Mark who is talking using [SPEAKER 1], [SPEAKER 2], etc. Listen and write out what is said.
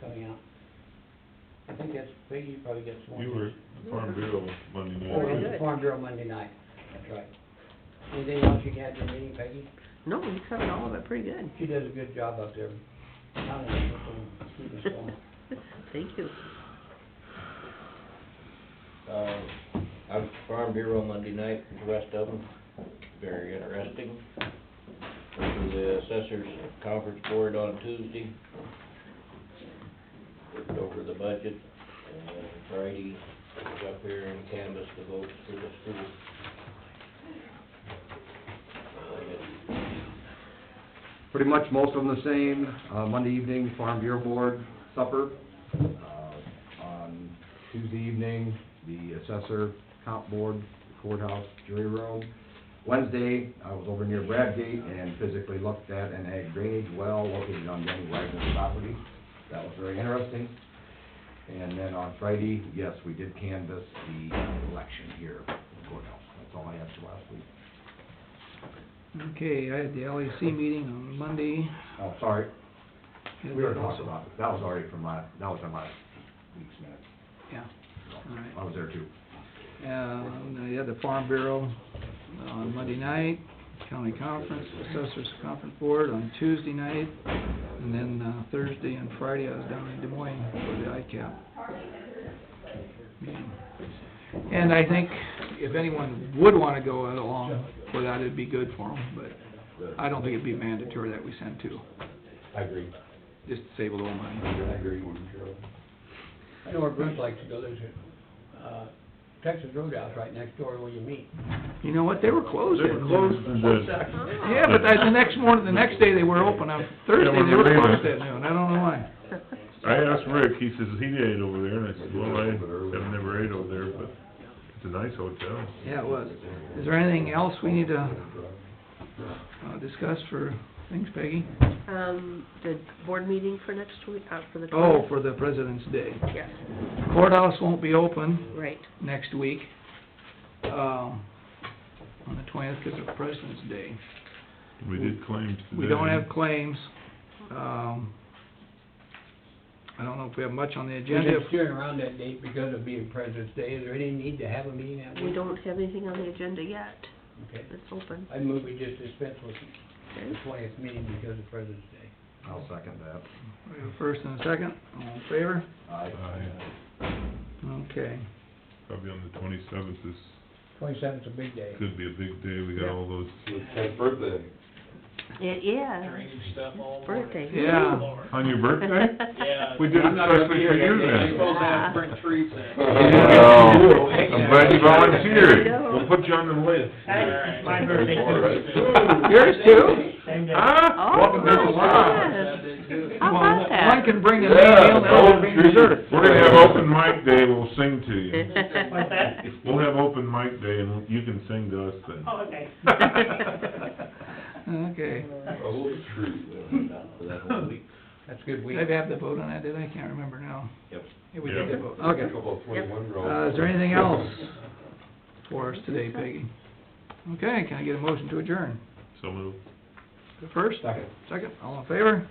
[SPEAKER 1] coming out. I think that's, Peggy probably gets one.
[SPEAKER 2] You were at the Farm Bureau Monday
[SPEAKER 3] Oh,
[SPEAKER 1] Or
[SPEAKER 2] night,
[SPEAKER 1] at
[SPEAKER 2] right?
[SPEAKER 1] the Farm Bureau Monday night, that's right. Anything else you had in the meeting, Peggy?
[SPEAKER 4] No, we covered all of it pretty good.
[SPEAKER 1] She does a good job up there. Not an interesting student, so.
[SPEAKER 4] Thank you.
[SPEAKER 5] Uh, I was at Farm Bureau Monday night, with the rest of them, very interesting. Went to the assessors conference board on Tuesday. Looked over the budget, and then Friday, was up here and canvassed the votes for the school. I guess
[SPEAKER 6] Pretty much most of them the same, uh, Monday evening, Farm Bureau Board supper. Uh, On Tuesday evening, the assessor, comp board, courthouse, jury room. Wednesday, I was over near Bradgate and physically looked at an ag drainage well located on Danny Wagner's property. That was very interesting. And then on Friday, yes, we did canvass the election here at the courthouse. That's all I had for last week.
[SPEAKER 3] Okay, I had the LEC meeting on Monday.
[SPEAKER 6] Oh, sorry,
[SPEAKER 3] Had
[SPEAKER 6] We
[SPEAKER 3] that
[SPEAKER 6] were talking
[SPEAKER 3] also.
[SPEAKER 6] about, it. that was already from last, that was on last week's minutes.
[SPEAKER 3] Yeah,
[SPEAKER 6] so
[SPEAKER 3] Alright.
[SPEAKER 6] I was there too.
[SPEAKER 3] um, I had the Farm Bureau on Monday night, County Conference, Assessors Conference Board on Tuesday night, and then uh, Thursday and Friday, I was down in Des Moines for the ICAP. meeting. And I think if anyone would wanna go along for that, it'd be good for them, but I don't think it'd be mandatory that we send two,
[SPEAKER 6] I agree.
[SPEAKER 3] just to save a little money.
[SPEAKER 6] I agree.
[SPEAKER 1] I know where Bruce likes to go, there's a, uh, Texas Roadhouse right next door where you meet.
[SPEAKER 3] You know what, they were closed.
[SPEAKER 2] They were closed and then,
[SPEAKER 3] Yeah, but the the next morning, the next day, they were open, on Thursday, they were
[SPEAKER 2] Yeah, we're
[SPEAKER 3] closed
[SPEAKER 2] leaving.
[SPEAKER 3] at noon, I don't know why.
[SPEAKER 2] I asked Rick, he says he ate over there, and I said, well, I have never ate over there, but it's a nice hotel.
[SPEAKER 3] Yeah, it was. Is there anything else we need to, uh, discuss for things, Peggy?
[SPEAKER 4] Um, the board meeting for next week, uh, for the
[SPEAKER 3] Oh,
[SPEAKER 4] twentieth?
[SPEAKER 3] for the President's Day.
[SPEAKER 4] Yes,
[SPEAKER 3] Courthouse won't be open
[SPEAKER 4] right.
[SPEAKER 3] next week, um, on the twentieth, because of President's Day.
[SPEAKER 2] We did claims today.
[SPEAKER 3] We don't have claims, um, I don't know if we have much on the
[SPEAKER 1] We've
[SPEAKER 3] agenda.
[SPEAKER 1] been steering around that date because of being President's Day, is there any need to have a meeting that week?
[SPEAKER 4] We don't have anything on the agenda yet.
[SPEAKER 1] Okay,
[SPEAKER 4] It's open.
[SPEAKER 1] I move we just dispense with the
[SPEAKER 4] Okay.
[SPEAKER 1] twentieth meeting because of President's Day.
[SPEAKER 6] I'll second that.
[SPEAKER 3] We have a First and a second, all in favor?
[SPEAKER 2] Aye.
[SPEAKER 3] Okay.
[SPEAKER 2] Probably on the twenty-seventh is,
[SPEAKER 1] Twenty-seventh's a big day.
[SPEAKER 2] could be a big day, we got all those,
[SPEAKER 4] It is. Birthday.
[SPEAKER 3] Yeah.
[SPEAKER 2] on your birthday?
[SPEAKER 7] Yeah.
[SPEAKER 2] We did it
[SPEAKER 7] I'm not gonna
[SPEAKER 2] especially
[SPEAKER 7] be
[SPEAKER 2] for
[SPEAKER 7] here
[SPEAKER 2] you
[SPEAKER 7] that day.
[SPEAKER 2] then. Uh-huh.
[SPEAKER 7] I'm supposed to have spring treats in.
[SPEAKER 2] I'm glad you volunteered,
[SPEAKER 4] Yeah.
[SPEAKER 2] we'll put you on the list.
[SPEAKER 7] Alright.
[SPEAKER 8] My birthday
[SPEAKER 3] Yours too?
[SPEAKER 8] Same day.
[SPEAKER 2] Huh?
[SPEAKER 4] Oh,
[SPEAKER 2] Welcome to the
[SPEAKER 4] my
[SPEAKER 2] lodge.
[SPEAKER 4] goodness.
[SPEAKER 7] That day too.
[SPEAKER 4] How
[SPEAKER 3] Well,
[SPEAKER 4] about that?
[SPEAKER 3] One can bring a meal, the other bring dessert.
[SPEAKER 2] We're gonna have open mic day, we'll sing to you.
[SPEAKER 8] What's that?
[SPEAKER 2] We'll have open mic day and you can sing to us then.
[SPEAKER 8] Oh, okay.
[SPEAKER 3] Okay.
[SPEAKER 5] that whole week.
[SPEAKER 1] That's a good week.
[SPEAKER 3] Did I have the vote on that, did I? Can't remember now.
[SPEAKER 5] Yep.
[SPEAKER 3] Yeah, we did
[SPEAKER 2] Yeah.
[SPEAKER 3] the vote, okay. Uh, is there anything else for us today, Peggy? Okay, can I get a motion to adjourn?
[SPEAKER 2] So moved.
[SPEAKER 3] The First?
[SPEAKER 6] Second.
[SPEAKER 3] Second, all in favor?